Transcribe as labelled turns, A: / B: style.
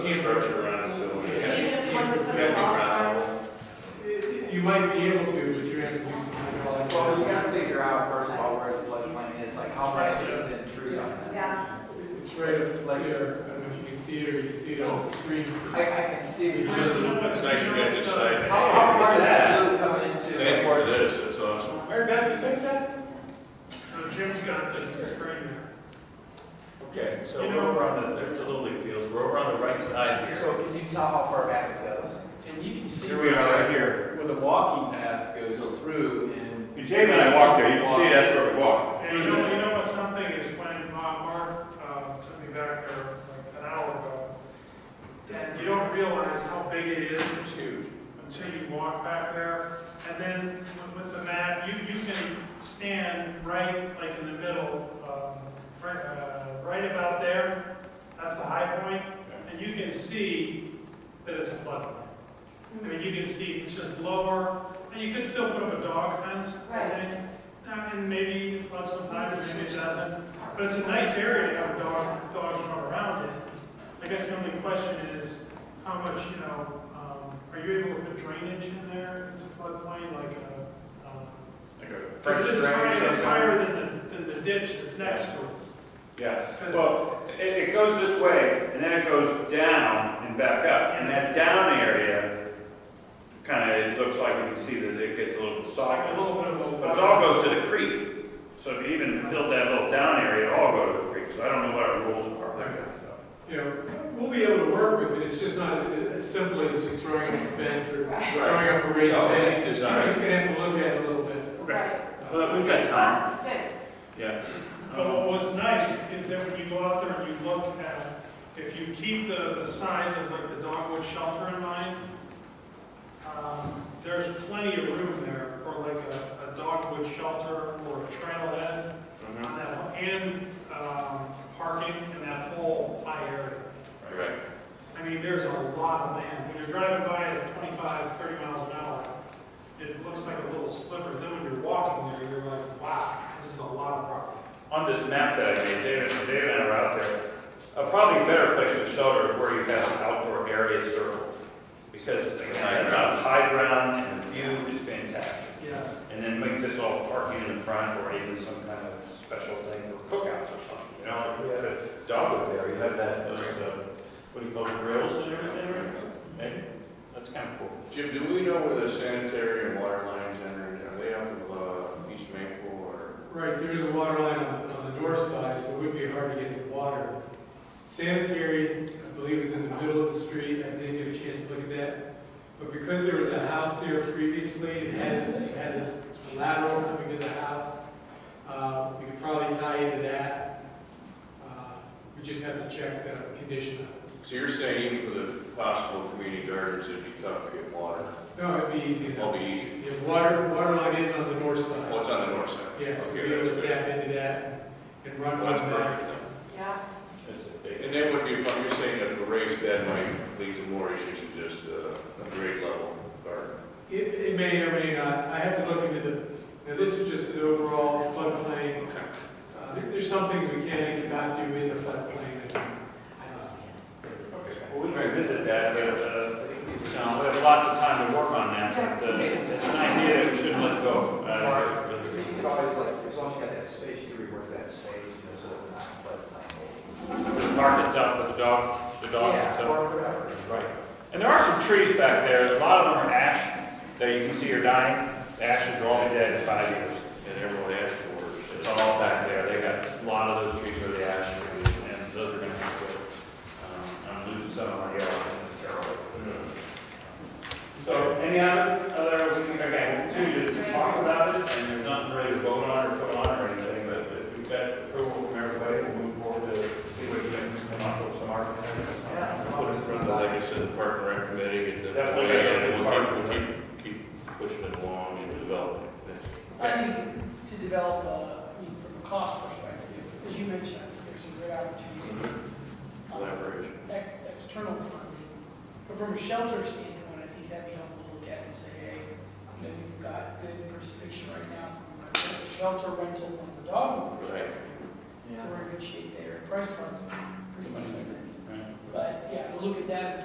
A: the structure around it, so.
B: So even if you wanted to put
A: Yeah,
B: a
A: it's
B: wall
A: around.
B: around-
C: You might be able to, but you have to do some hydraulic.
D: Well, you gotta figure out first of all where the floodplain is, like how much is it in tree lines?
B: yeah,
C: It's right up like there, I don't know if you can see it or you can see it on the screen.
D: I, I can see.
A: Yeah,
D: How,
A: That's nice you got this
D: how
A: side.
D: far that blue comes into the
A: Thank you for
D: forest?
A: this, that's awesome.
E: Mary Beth, you fix that?
C: Jim's got the screen.
E: Okay, so we're over on the, there's the Little League fields, we're over on the right side here.
D: So can you tell how far back it goes?
F: And you can see.
E: Here we are, right here.
F: Where the walking path goes through and.
A: And Jamie and I walked there, you can see that's where we walked.
G: And you know, you know what something is when uh, Mark uh, took me back there like an hour ago, and you don't realize how big it is
F: It's huge.
G: until you walk back there. And then with- with the mat, you, you can stand right, like in the middle, um, right, uh, right about there. That's the high point, and you can see that it's a floodplain. I mean, you can see it's just lower, and you could still put up a dog fence. I
B: Right.
G: think. Uh, And maybe it floods sometimes, maybe it doesn't. But it's a nice area to have dog, dogs run around in. I guess the only question is, how much, you know, um, are you able to put drainage in there? It's a floodplain, like a, um,
E: Like a
G: because
E: French
G: it's
E: drain or
G: higher, it's
E: something.
G: higher than the, than the ditch that's next to it.
E: Yeah, well, it, it goes this way, and then it goes down and back up, and that down area kind of, it looks like you can see that it gets a little
G: Like a
E: soft.
G: little bit of a.
E: But it all goes to the creek, so if you even filled that little down area, it all go to the creek, so I don't know what our rules are. that kind of stuff.
C: You know, we'll be able to work with it, it's just not as simple as just throwing up a fence or throwing up a raised
A: Oh,
C: bed.
A: nice
C: You're
A: design.
C: gonna have to look at it a little bit.
B: right.
E: Well, we've got time,
B: Ah, good.
E: yeah.
G: But what was nice is that when you go out there and you look at, if you keep the, the size of like the dogwood shelter in mind, um, there's plenty of room there for like a, a dogwood shelter or a trailhead
E: Uh-huh.
G: on that, and, um, parking in that whole high area.
A: Right.
G: I mean, there's a lot of land. When you're driving by at 25, 30 miles an hour, it looks like a little sliver. Then when you're walking there, you're like, wow, this is a lot of property.
E: On this map that I made, David, David and I were out there, a probably better place to shelter is where you have an outdoor area circle. Because again, that's on high ground and the view is fantastic.
G: Yes.
E: And then make this all parking in the front or even some kind of special thing for cookouts or something, you know? like You had a dog up there, you had that, those, uh, what do you call it, grills and everything, right? Maybe, that's kind of cool.
A: Jim, do we know where the sanitary and water lines enter? Are they up of uh, East Maple or?
C: Right, there is a water line on, on the north side, so it would be hard to get to water. Sanitary, I believe, is in the middle of the street, I didn't get a chance to look at that. But because there was a house there previously, it has, it had a lateral coming to the house, uh, we could probably tie into that. Uh, We just have to check the condition of it.
A: So you're saying even for the possible community gardens, it'd be tough to get water?
C: No, it'd be easy
A: It'll
C: enough.
A: be easy.
C: Yeah, water, water line is on the north
A: Well,
C: side.
A: it's on the north side.
C: Yes, we'd
A: Okay,
C: be able
A: that's
C: to
A: good.
C: tap into that and run
A: Well,
C: one
A: That's
C: back.
A: perfect.
B: Yeah,
E: It's a big-
A: And then what you're, you're saying that the raised bed might lead to more issues than just uh, a grade level garden?
C: It, it may or may not, I have to look into the, now this is just an overall floodplain. Uh, there- There's some things we can and cannot do in the floodplain. that, uh,
E: Okay, Well, we can visit that, but, uh, John, we have lots of time to work on that, but uh, it's an idea that we shouldn't let go.
D: I
E: Uh,
D: mean, You could always like, as long as you got that space, you rework that space, you know, so it's not floodplain.
E: The park itself, but the dog, the dogs
D: Yeah,
E: itself.
D: or whatever.
E: Right. And there are some trees back there, a lot of them are ash, that you can see are dying. The ashes are all dead in five years.
A: And everyone asked for it.
E: It's all back there, they got, a lot of those trees are the ash trees, and those are gonna have to, um, I'm losing some of my yellow in this terrible. So any other, other, we can, again, we'll continue to talk about it, and there's nothing really to vote on or put on or anything, but if we've got approval from everybody, we'll move forward to see what we can come up with some architects.
D: Yeah.
C: Oh,
A: Put it in front of the, like I said, the park and rec committee, get the.
E: Definitely.
A: And we'll keep, we'll keep, keep pushing it along and developing it.
H: I think to develop, uh, I mean, from a cost perspective, as you mentioned, I think there's some great opportunities. um,
A: Collaboration.
H: ex- External funding, but from a shelter standpoint, I think that'd be helpful to look at and say, hey, you know, we've got good participation right now from a shelter rental from the dog. owners.
A: Right.
H: So we're in good shape there, price points, pretty decent.
E: Right.
H: But, yeah, look at that and